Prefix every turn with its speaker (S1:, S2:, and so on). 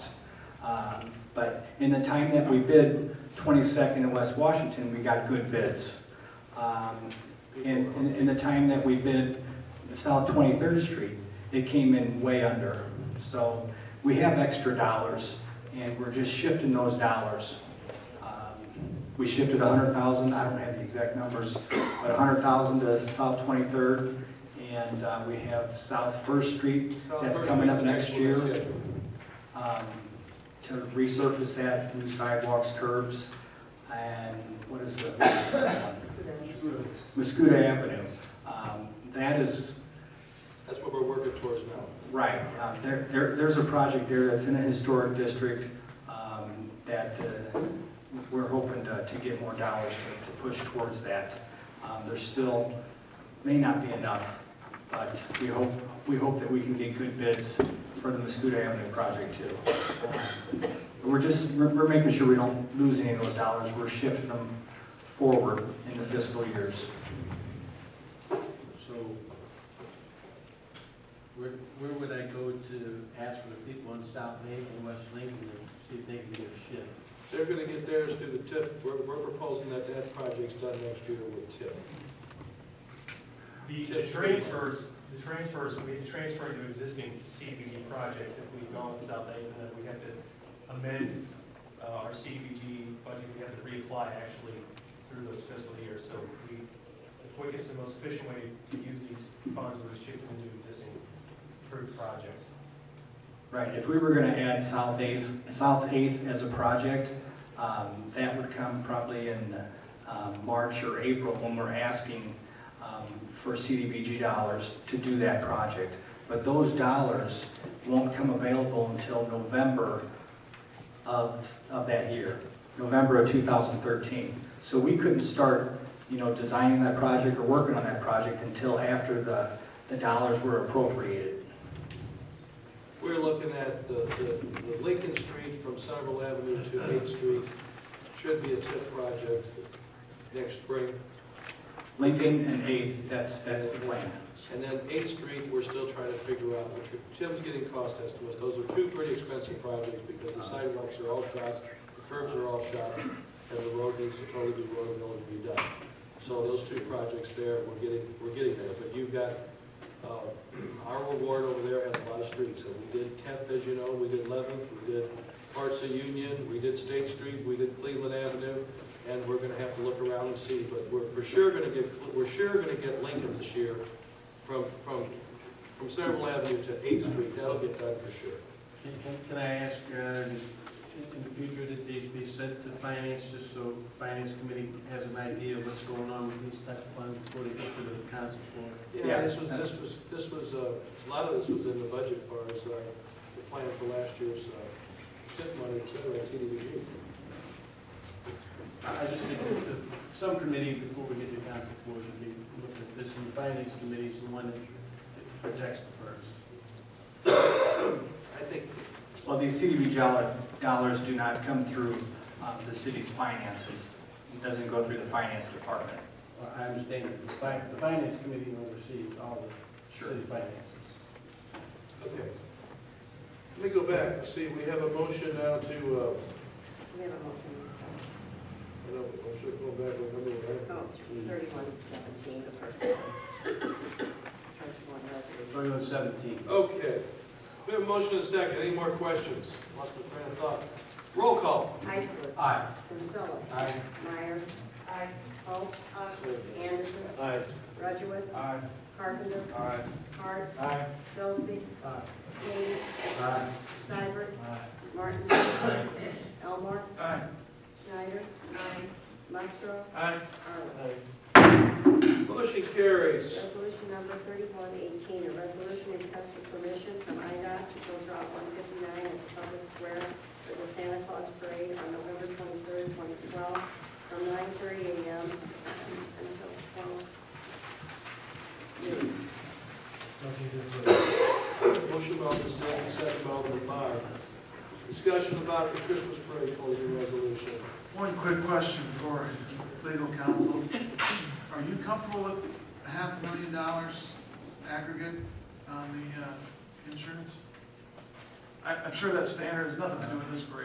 S1: Um, But in the time that we bid 22nd in West Washington, we got good bids. Um, In, in- in the time that we bid South 23rd Street, it came in way under. So we have extra dollars, and we're just shifting those dollars. Um, We shifted 100,000, I don't have the exact numbers, but 100,000 to South 23rd, and uh, we have South First Street that's coming up next year um, to resurface that, new sidewalks, curbs, and what is the, Muscuda Avenue. Um, That is,
S2: That's what we're working towards now.
S1: right, uh, there, there- there's a project there that's in a historic district um, that uh, we're hoping to, to get more dollars to, to push towards that. Um, There's still, may not be enough, but we hope, we hope that we can get good bids for the Muscuda Avenue project too. Um, We're just, we're we're making sure we don't lose any of those dollars, we're shifting them forward in the fiscal years.
S3: So where, where would I go to ask for the people in South Maple and West Lincoln to see if they can get a shift?
S2: They're gonna get theirs through the TIF. We're, we're proposing that that project's done next year with TIF.
S4: The, the transfers, the transfers, we had to transfer into existing CDBG projects if we've gone with South Haven, then we have to amend uh, our CDBG budget, we have to reapply actually through those fiscal years, so we, the quickest and most efficient way to use these funds was shift them into existing approved projects.
S1: Right, if we were gonna add South Eighth, South Eighth as a project, um, that would come probably in, um, March or April when we're asking, um, for CDBG dollars to do that project. But those dollars won't come available until November of, of that year, November of two thousand thirteen. So we couldn't start, you know, designing that project or working on that project until after the, the dollars were appropriated.
S2: We're looking at the, the the Lincoln Street from Somerville Avenue to Eighth Street. Should be a TIF project next spring.
S1: Lincoln and Eighth, that's, that's the plan.
S2: And then Eighth Street, we're still trying to figure out, which are- Tim's getting cost estimates. Those are two pretty expensive projects because the sidewalks are all shot, the curbs are all shot, and the road needs to totally be road and to be done. So those two projects there, we're getting, we're getting there. But you've got, uh, our reward over there has a lot of streets. And we did Tenth, as you know, we did Eleventh, we did parts of Union, we did State Street, we did Cleveland Avenue. And we're gonna have to look around and see, but we're for sure gonna get, we're sure gonna get Lincoln this year from, from, from Central Avenue to Eighth Street, that'll get done for sure.
S3: Can, can, can I ask, uh, in- in the future, that these be sent to finance, just so finance committee has an idea of what's going on with these type of funds before they go to the council floor?
S2: Yeah, this was, this was, this was, uh, a lot of this was in the budget as far as, uh, the plan for last year's, uh, tip money, et cetera, CDBG.
S3: I I just think that the- some committee, before we get to council floor, should be looked at this, and the finance committee is the one that that protects the first.
S2: I think,
S1: Well, these CDB dollar- dollars do not come through um, the city's finances. It doesn't go through the finance department.
S3: Well, I understand, that the fi- the finance committee oversees all the city finances.
S2: okay. Let me go back, and see, we have a motion now to, uh,
S5: We have a motion,
S2: I know, I'm sure going back, I remember,
S5: so,
S2: right?
S5: oh, thirty-one seventeen, the first one. First one, resolution.
S3: Thirty-one seventeen.
S2: Okay, we have a motion and a second, any more questions? Lost my train of thought. Roll call.
S5: Heisler.
S3: Aye.
S5: Kinsella.
S3: Aye.
S5: Meyer. Aye. Holt. Aye. Anderson.
S3: Aye.
S5: Rudowitz.
S3: Aye.
S5: Carpenter.
S3: Aye.
S5: Hart.
S3: Aye.
S5: Sillsby.
S3: Aye.
S5: Kane.
S3: Aye.
S5: Seibert.
S3: Aye.
S5: Martin. Elmore.
S3: Aye.
S5: Schneider. Aye. Musgrove.
S3: Aye.
S5: Arlen.
S2: Motion carries.
S5: Resolution number thirty-one eighteen, a resolution request for permission from IDOT to close Route one fifty-nine at the public square for the Santa Claus parade on November twenty-third, twenty twelve, from nine thirty AM until twelve noon.
S2: Motion by Alderman Sandy, second by Alderman Meyer. Discussion about the Christmas parade closing resolution.
S6: One quick question for legal counsel. Are you comfortable with half a million dollars aggregate on the uh, insurance? I- I'm sure that standard has nothing to do with this parade.